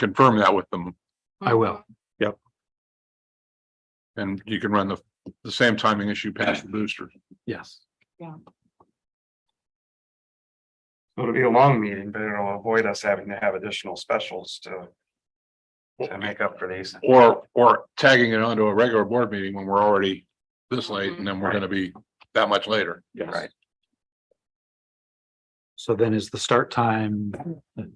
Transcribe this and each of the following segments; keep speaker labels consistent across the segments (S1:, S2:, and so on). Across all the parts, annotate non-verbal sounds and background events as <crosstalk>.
S1: confirm that with them
S2: I will.
S3: Oh,
S1: and you can run the, the same timing as you pass the boosters.
S2: Yes.
S4: It'll be a long meeting, but it'll avoid us having to have additional specials to. To make up for these.
S1: Or, or tagging it onto a regular board meeting when we're already this late and then we're gonna be that much later.
S4: Right.
S2: So then is the start time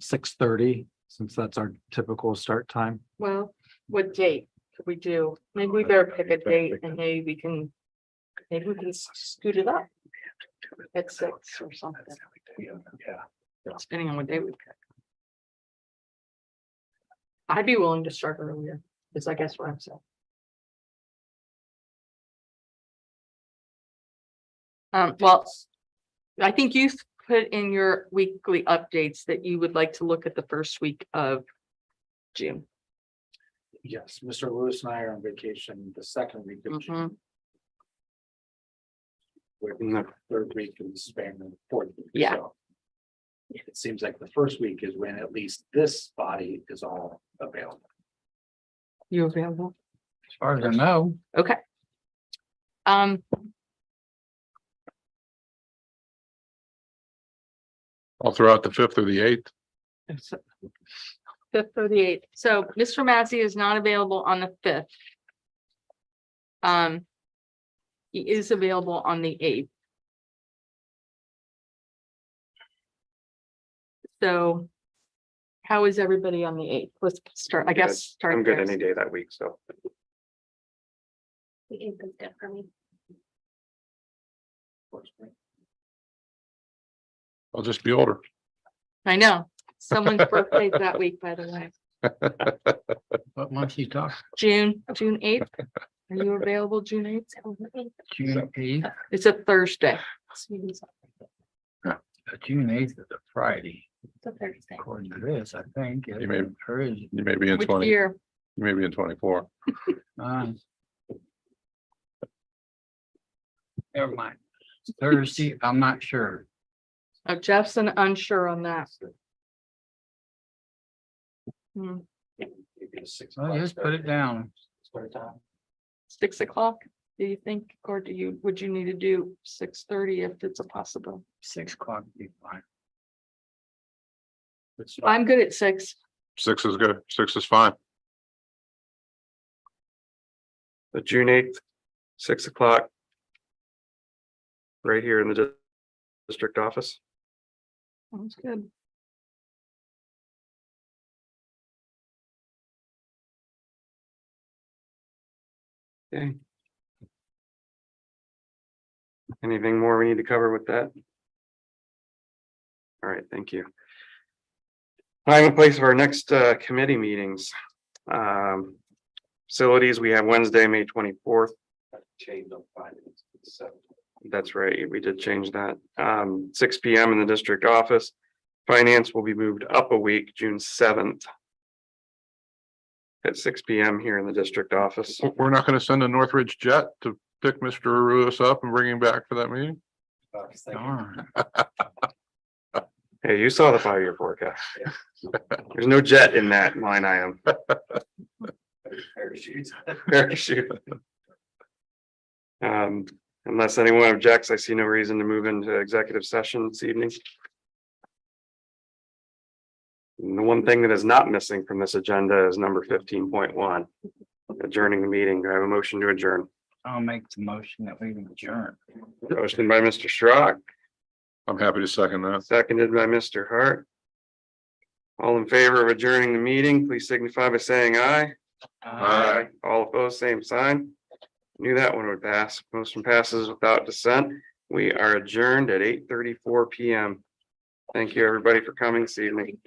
S2: six thirty, since that's our typical start time?
S3: Well, what date could we do? Maybe we better pick a date and maybe we can. Maybe we can scoot it up at six or something, depending on what day we pick. I'd be willing to start earlier, is I guess what I'm saying. Um, well, I think you've put in your weekly updates that you would like to look at the first week of June.
S2: Yes, Mr. Lewis and I are on vacation the second week of June,
S3: Mhm.
S2: we're in the third week of the span and the fourth. week,
S3: Yeah.
S2: so It seems like the first week is when at least this body is all available.
S3: You available?
S2: As far as I know.
S3: Okay. Um,
S1: I'll throw out the fifth or the eighth.
S3: fifth or the eighth. So Mr. Massey is not available on the fifth. Um, he is available on the eighth. So how is everybody on the eighth? Let's start, I guess, start.
S4: I'm good
S3: there.
S4: any day that week, so.
S5: The eighth is good for me.
S1: I'll just be older.
S3: I
S4: <laughs>
S3: know. Someone's birthday is that week, by the way.
S2: But once you talk.
S3: June, June eighth. Are you available June eighth?
S5: So the eighth,
S2: June eighth,
S3: It's a Thursday.
S5: so you use
S2: uh, June eighth is a Friday,
S5: the Thursday.
S2: according to this, I think.
S1: You may- You may be in
S3: Which
S1: twenty, you
S3: year?
S1: may be in twenty-four.
S2: Never mind. Thursday, I'm not sure.
S3: Oh, Jeff's an unsure on that. Hmm,
S2: Well, just put it down.
S3: six o'clock, do you think, or do you, would you need to do six thirty if it's a possible?
S2: Six o'clock would be fine.
S3: I'm good at six.
S1: Six is good. Six is fine.
S4: The June eighth, six o'clock. Right here in the dis- district office.
S3: Sounds good.
S4: Okay. Anything more we need to cover with that? All right, thank you. Time and place of our next uh, committee meetings. Um, Facilities, we have Wednesday, May twenty-fourth. That's right, we did change that. Um, Six P M in the district office. Finance will be moved up a week, June seventh. At six P M here in the district office.
S1: We're- We're not gonna send a Northridge jet to pick Mr. Lewis up and bring him back for that meeting?
S2: Darn.
S4: Hey, you saw the five-year forecast. <laughs> There's no jet in that line item. <laughs> Parachute. Um, unless anyone objects, I see no reason to move into executive session this evening. And The one thing that is not missing from this agenda is number fifteen point one. Adjourning the meeting. Do I have a motion to adjourn?
S2: I'll make the motion that we adjourn.
S4: Motion by Mr. Schrock,
S1: I'm happy to second that.
S4: seconded by Mr. Hart. All in favor of adjourning the meeting, please signify by saying aye.
S1: Aye.
S4: All opposed, same sign. Knew that one would pass. Motion passes without dissent. We are adjourned at eight thirty-four PM. Thank you, everybody, for coming this evening.